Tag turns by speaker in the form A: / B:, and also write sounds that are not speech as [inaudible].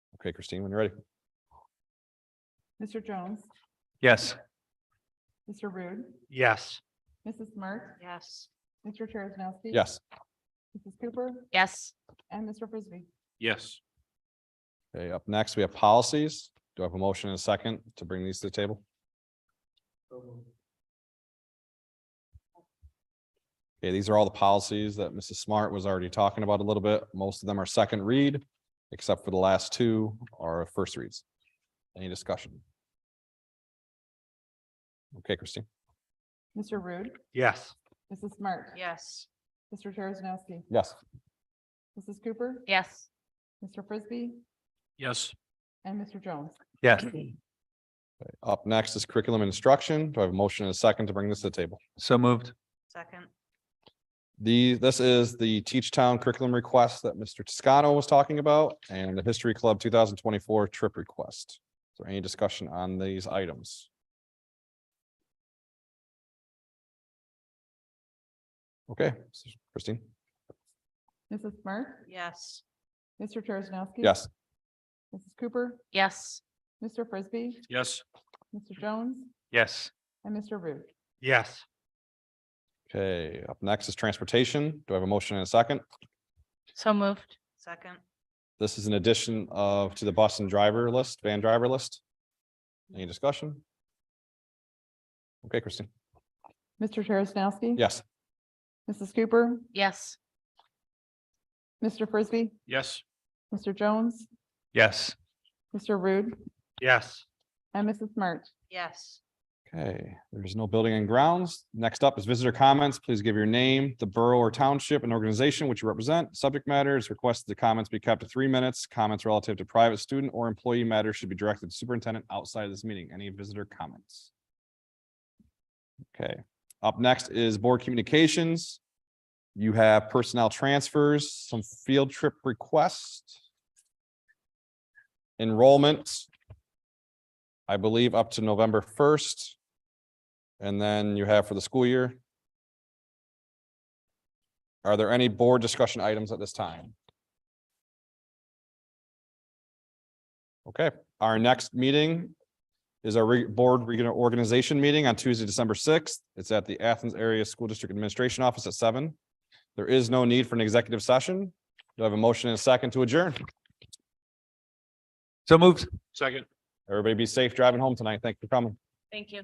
A: Okay, Christine, when you're ready.
B: Mr. Jones,
C: Yes.
B: Mr. Rude,
C: Yes.
B: Mrs. Smart,
D: Yes.
B: Mr. Terrence
A: Yes.
B: Mrs. Cooper
D: Yes.
B: and Mr. Frisbee.
C: Yes.
A: Okay, up next, we have policies. Do I have a motion and a second to bring these to the table? Okay, these are all the policies that Mrs. Smart was already talking about a little bit. Most of them are second read, except for the last two are first reads. Any discussion? Okay, Christine.
B: Mr. Rude,
C: Yes.
B: Mrs. Smart.
D: Yes.
B: Mr. Terrence
A: Yes.
B: Mrs. Cooper,
D: Yes.
B: Mr. Frisbee
C: Yes.
B: and Mr. Jones. [clears throat]
C: Yes.
A: Up next is curriculum instruction. Do I have a motion and a second to bring this to the table?
C: So moved.
D: Second.
A: The, this is the Teach Town curriculum request that Mr. Toscano was talking about and the History Club two thousand twenty-four trip request. Is there any discussion on these items? Okay, Christine?
B: Mrs. Smart,
D: Yes.
B: Mr. Terrence
A: Yes,
B: Mrs. Cooper,
D: Yes.
B: Mr. Frisbee,
C: Yes.
B: Mr.
A: Mm-hmm.
B: Jones
C: Yes.
B: and Mr. Rude.
C: Yes.
A: okay. Up next is transportation. Do I have a motion and a second?
D: So moved. Second.
A: This is an addition of, to the bus and driver list, van driver list. Any discussion? Okay, Christine?
B: Mr. Terrence
A: Yes,
B: Mrs. Cooper,
D: Yes.
B: Mr. Frisbee,
C: Yes.
B: Mr. Jones,
C: Yes.
B: Mr. Rude
C: Yes.
B: and Mrs. Smart.
D: Yes.
A: Okay, there's no building and grounds. Next up is visitor comments. Please give your name, the borough or township and organization which you represent. Subject matters requested the comments be kept to three minutes. Comments relative to private student or employee matters should be directed to superintendent outside of this meeting. Any visitor comments? Okay, up next is board communications. You have personnel transfers, some field trip requests. Enrollment, I believe up to November first. And then you have for the school year. Are there any board discussion items at this time? Okay, our next meeting is our re- board regular organization meeting on Tuesday, December sixth. It's at the Athens Area School District Administration Office at seven. There is no need for an executive session. Do I have a motion and a second to adjourn?
C: So moved. Second.
A: Everybody be safe driving home tonight. Thank you for coming.
D: Thank you.